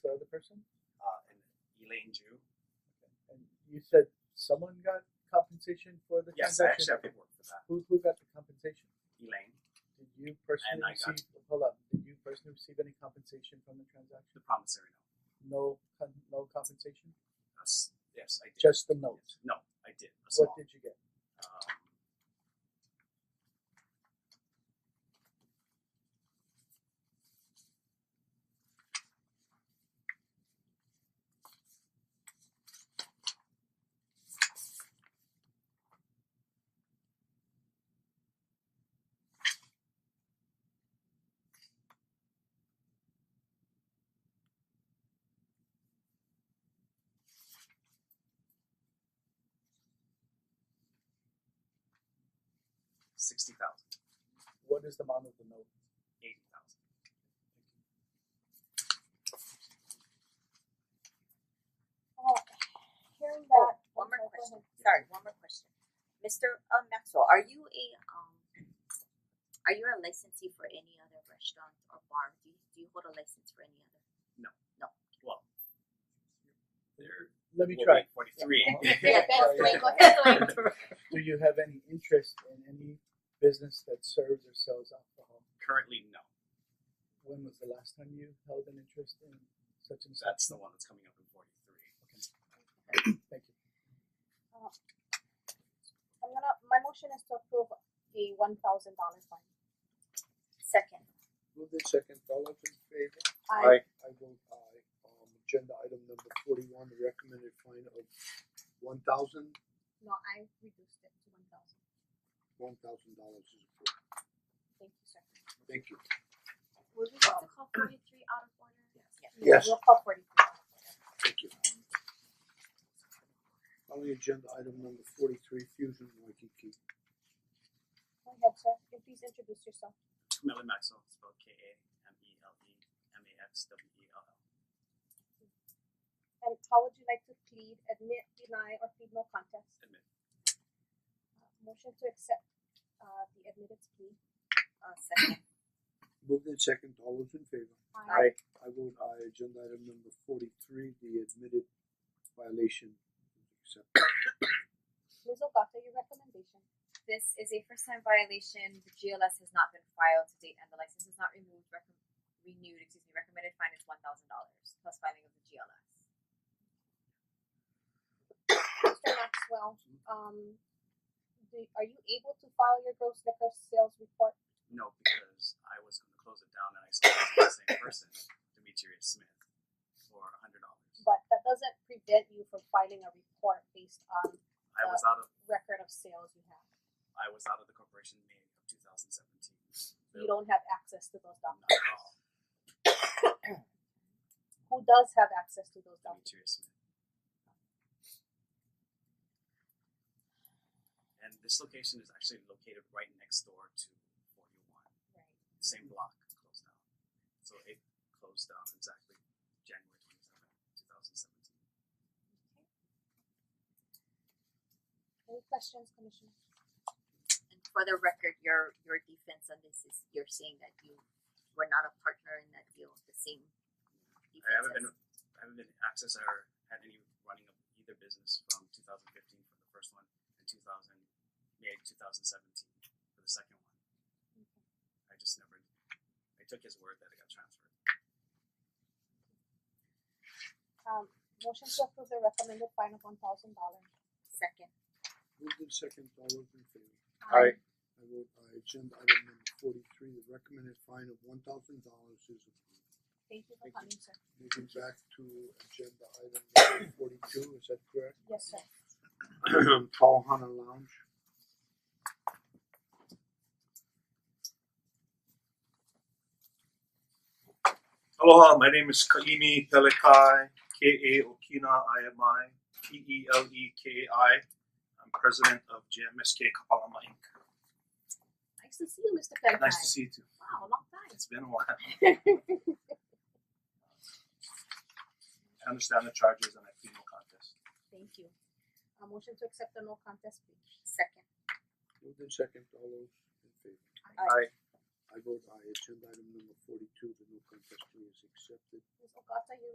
person? uh, and Elaine Jew. And you said someone got compensation for the Yes, I transaction. actually have paperwork for that. Who who got the compensation? Elaine, Did you personally And I got- receive? Hold up. Did you personally receive any compensation from the transaction? the promissory No, note. con- no compensation. Yes, yes, I did. Just the note. No, I did. A What small, did you get? um, sixty thousand, What is the amount of the note? eighty thousand. Well, Oh, hearing that. One more oh, go question, ahead. sorry, one more question. Mister uh, Maxwell, are you a um, are you a licensee for any other restaurant or bar? Do you, do you hold a license for any other? Well, there. Let me try. Forty-three. Yeah, Yeah, thanks, yeah. Dwayne, go ahead, Dwayne. Do you have any interest in any business that serves or sells alcohol? Currently, no. When was the last time you held an interest in such and such? That's the one that's coming up in forty-three. Thank you. I'm gonna, my motion is to approve the one thousand dollar fine. Second, Moved in second, all those in favor? I I vote aye. Um agenda item number forty one, the recommended fine of one thousand, No, I reduced it to one thousand, one thousand dollars is approved. thank you, sir. Thank you. Would you like to call forty-three out of order? Yes. Yes. We'll call forty-three. Thank you. Calling agenda item number forty three, Fusion Waikiki. Go ahead, sir, and please introduce yourself. Melon Maxwell, spelled K A M E L E M A X W E L L. And how would you like to plead, admit, deny, or plead no contest? Admit. Uh, Motion to accept uh the admittance plea. uh, second, Moved in second, all those in favor? Aye. I vote aye. Agenda item number forty-three, the admitted violation is accepted. Ms. Ogata, your recommendation. This is a first time violation. The GLS has not been filed to date and the license is not removed, recom- renewed, excuse me, recommended fine is one thousand dollars plus filing of the GLS. Mr. Maxwell, um do, are you able to file your gross liquor sales report? No, because I was going to close it down and I sold it to the same person, Demetrius Smith, for a hundred dollars. But that doesn't prevent you from filing a report based on I was out of record of sales you have. I was out of the corporation in May of 2017. You don't have access to those Not documents. at all. Who does have access to those documents? Demetrius Smith. And this location is actually located right next door to 41, Right. Mm-hmm. same block, closed down. So it closed down exactly January 27, 2017. Any questions, Commissioner? and for the record, your your defense on this is you're saying that you were not a partner in that deal, the same. I haven't been defense as- I haven't been access or had any running of either business from 2015 for the first one and 2000 May 2017 for the second one. I just never I took his word that it got transferred. Um motion to approve the recommended fine of one thousand dollars. Second, Moved in second, all those in favor? Aye. I vote aye. Agenda item number forty-three, the recommended fine of one thousand dollars is approved. Thank you for coming, Thank you. sir. Moving back to agenda item number forty-two, is that correct? Yes, sir. Pauhana Lounge. Aloha, my name is Kaimi Pelekai, K A Okina I M I, P E L E K A I. I'm president of JMSK Kapalama Inc. Nice to see you, Mister Pelican. Nice to see you too. Wow, long time. It's been a while. I understand the charges and I plead no contest. Thank you. A motion to accept the no contest plea. second, Moved in second, all those in favor? Aye. I vote aye. Agenda item number forty-two, the no contest plea is accepted. Ms. Ogata, you